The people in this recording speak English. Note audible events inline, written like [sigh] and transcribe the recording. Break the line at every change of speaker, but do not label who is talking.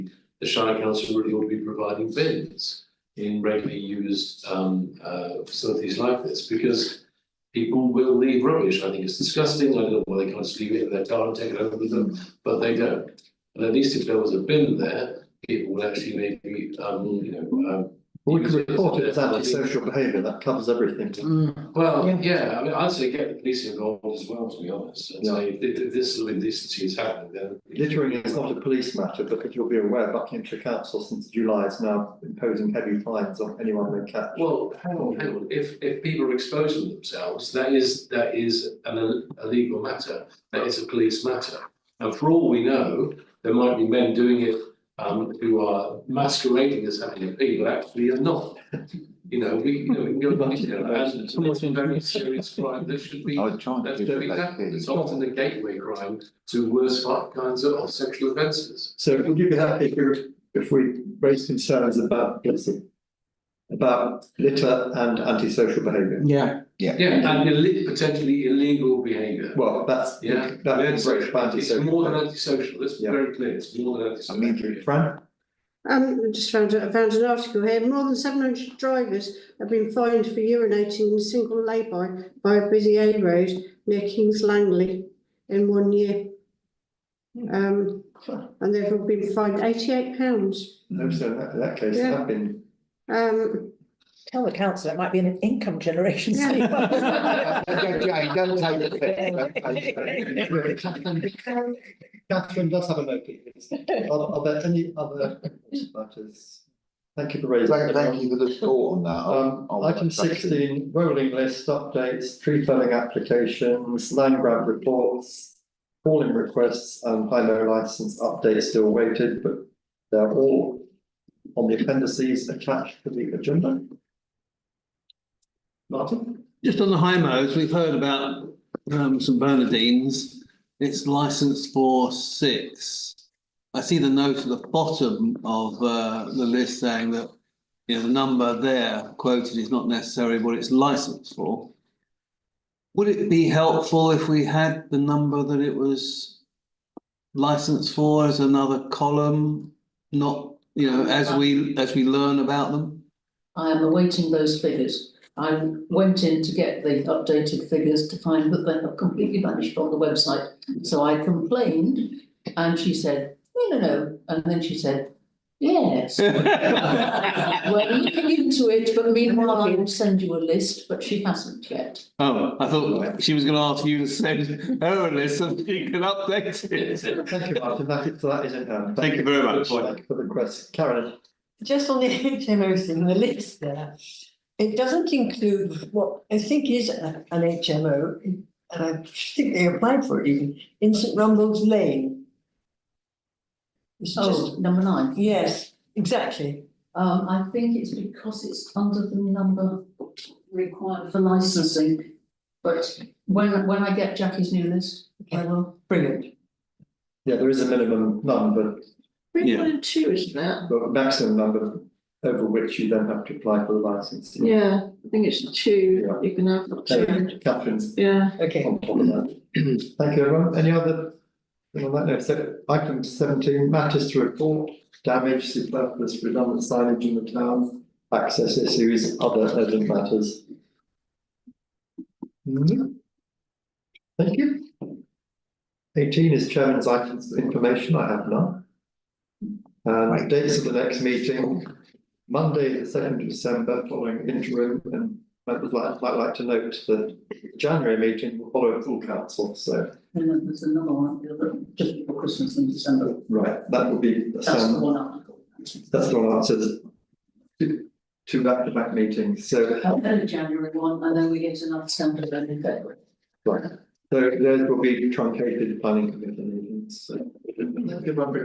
the Shire Council really ought to be providing bins in regularly used um uh facilities like this, because people will leave rubbish, I think it's disgusting, I don't know why they can't just leave it in their car and take it home with them, but they don't. And at least if there was a bin there, people would actually maybe, um, you know, um,
We could report it as antisocial behaviour, that covers everything.
well,
Yeah.
yeah, I mean, I'd say get the police involved as well, to be honest, and say, if if this sort of indecency is happening, then.
Littering is not a police matter, but if you'll be aware, Buckinghamshire Council since July is now imposing heavy fines on anyone they catch.
Well, hang on, hang on, if if people are exposing themselves, that is, that is an ill- illegal matter, that is a police matter. And for all we know, there might be men doing it um who are masquerading as having a pee, but actually are not. You know, we, you know, we can go back to that, and it's a very serious crime, there should be,
I was trying
that
to.
should be tackled. it's often a gateway crime to worse kinds of sexual offences.
So would you be happy if we, if we raise concerns about, listen, about litter and antisocial behaviour?
Yeah,
Yeah, and illi- potentially illegal behaviour.
Well, that's,
Yeah.
that's
It's-
breach of
It's more than
antisocial.
antisocial, let's be
Yeah.
very clear, it's more than antisocial.
I mean,
Fran,
Um, just found, I found an article here, more than seven hundred drivers have been fined for urinating in a single lay-by by a busy A road near Kings Langley in one year. Um, and they've all been fined eighty-eight pounds.
no, so in that, in that case,
Yeah.
I've
[laughs]
been,
Um,
Tell the council it might be an income generation. scheme.
[laughs]
Jane, don't take
Um,
Catherine does have a note. Are, are there any other matters? Thank you for raising.
Thank, thank you for the thought on that.
Um,
I'll- I'll-
item sixteen, rolling list updates, tree felling applications, land grab reports, calling requests and high-low license updates still waited, but they're all on the appendices attached to the agenda. Martin?
Just on the high mows, we've heard about um St Bernardines. It's licensed for six. I see the note at the bottom of uh the list saying that, you know, the number there quoted is not necessarily what it's licensed for. Would it be helpful if we had the number that it was licensed for as another column? Not, you know, as we, as we learn about them?
I am awaiting those figures. I went in to get the updated figures to find that they have completely vanished from the website. So I complained and she said, no, no, no. And then she said, yes.
[laughs]
We're looking into it, but meanwhile I will send you a list, but she hasn't yet.
Oh, I thought she was gonna ask you to send her a list so that you can update it.
Thank you, Martin, that is, that is it now.
Thank you very much.
Thank you for the request. Karen,
just on the HMOs in the list there, it doesn't include what I think is a- an HMO, and I think they applied for it even, in St Rumbold's Lane. It's
Oh,
just,
number nine.
yes, exactly.
Um, I think it's because it's under the number required for licensing. But when, when I get Jackie's new list, I will.
Brilliant.
yeah, there is a minimum number,
Yeah.
three point two, isn't it?
but maximum number over which you then have to apply for the license.
Yeah, I think it's two, you can have two,
Catherine's
yeah.
Okay.
on top of that. Thank you, everyone. Any other? thing on that note, so item seventeen, matters to report, damage, superfluous, redundant signage in the town, access issues, other urgent matters. No? Thank you. Eighteen is chairman's items of information. I have none. And dates of the next meeting, Monday, the second of December, following interim, and I would like, I'd like to note that January meeting will follow a full council, so,
And then there's another one, the other, just before Christmas in December,
right, that will be, that's
that's the
um,
one I'm.
that's the one answers. Two two back-to-back meetings, so,
Then January one, and then we get another December, then in February.
right, so those will be truncated planning committee meetings, so. Good one, Bri-